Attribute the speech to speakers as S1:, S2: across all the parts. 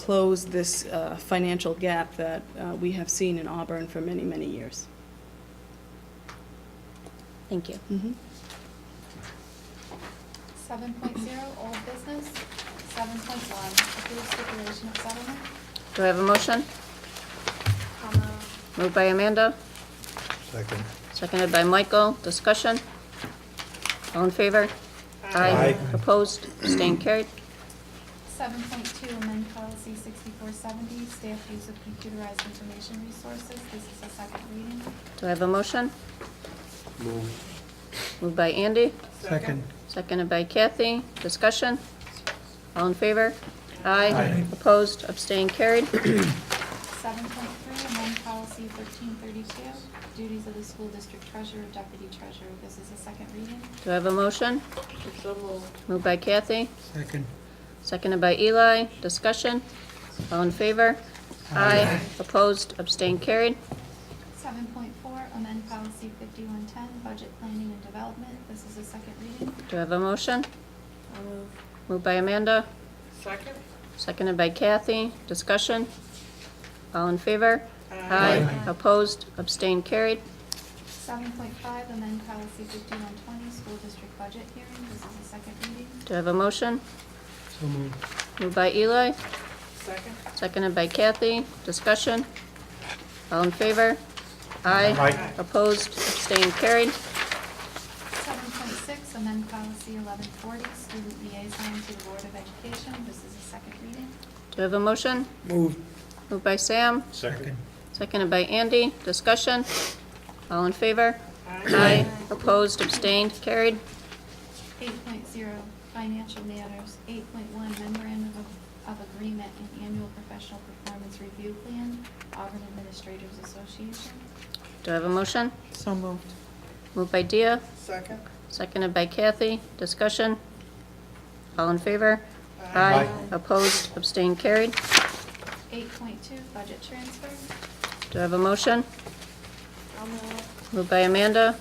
S1: close this uh, financial gap that uh, we have seen in Auburn for many, many years.
S2: Thank you.
S3: Seven point zero, old business. Seven point one, approved stipulation of settlement.
S2: Do I have a motion?
S3: I'll move.
S2: Moved by Amanda,
S4: Second.
S2: seconded by Michael. Discussion? All in favor?
S4: Aye.
S2: Opposed? Abstained? Carried.
S3: Seven point two, amend policy sixty-four seventy, staff use of computerized information resources. This is a second reading.
S2: Do I have a motion?
S4: Move.
S2: Moved by Andy,
S4: Second.
S2: seconded by Kathy. Discussion? All in favor? Aye. Opposed? Abstained? Carried.
S3: Seven point three, amend policy thirteen thirty-two, duties of the school district treasurer, deputy treasurer. This is a second reading.
S2: Do I have a motion? Moved by Kathy,
S4: Second.
S2: seconded by Eli. Discussion? All in favor? Aye. Opposed? Abstained? Carried.
S3: Seven point four, amend policy fifty-one ten, budget planning and development. This is a second reading.
S2: Do I have a motion? Moved by Amanda,
S5: Second?
S2: seconded by Kathy. Discussion? All in favor? Aye. Opposed? Abstained? Carried.
S3: Seven point five, amend policy fifty-one twenty, school district budget hearing. This is a second reading.
S2: Do I have a motion?
S4: So moved.
S2: Moved by Eli,
S5: Second?
S2: seconded by Kathy. Discussion? All in favor? Aye.
S4: Aye.
S2: Opposed? Abstained? Carried.
S3: Seven point six, amend policy eleven forty, student liaison to the Board of Education. This is a second reading.
S2: Do I have a motion?
S4: Moved.
S2: Moved by Sam,
S4: Second.
S2: Seconded by Andy. Discussion? All in favor? Aye. Opposed, abstained, carried.
S3: Eight point zero, financial matters. Eight point one, memorandum of, of agreement and annual professional performance review plan, Auburn Administrators Association.
S2: Do I have a motion?
S5: So moved.
S2: Moved by Dia,
S5: Second?
S2: seconded by Kathy. Discussion? All in favor?
S4: Aye.
S2: Opposed, abstained, carried.
S3: Eight point two, budget transfer.
S2: Do I have a motion? Moved by Amanda,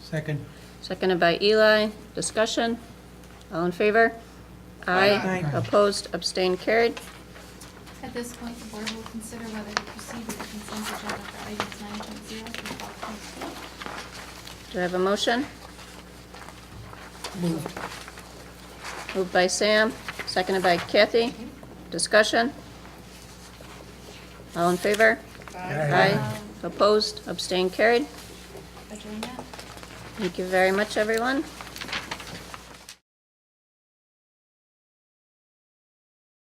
S4: Second.
S2: seconded by Eli. Discussion? All in favor? Aye. Opposed, abstained, carried.
S3: At this point, the board will consider whether to proceed with the consent agenda for items nine point zero through twelve point two.
S2: Do I have a motion? Moved by Sam, seconded by Kathy. Discussion? All in favor? Aye. Opposed, abstained, carried.
S3: Adjournment.
S2: Thank you very much, everyone.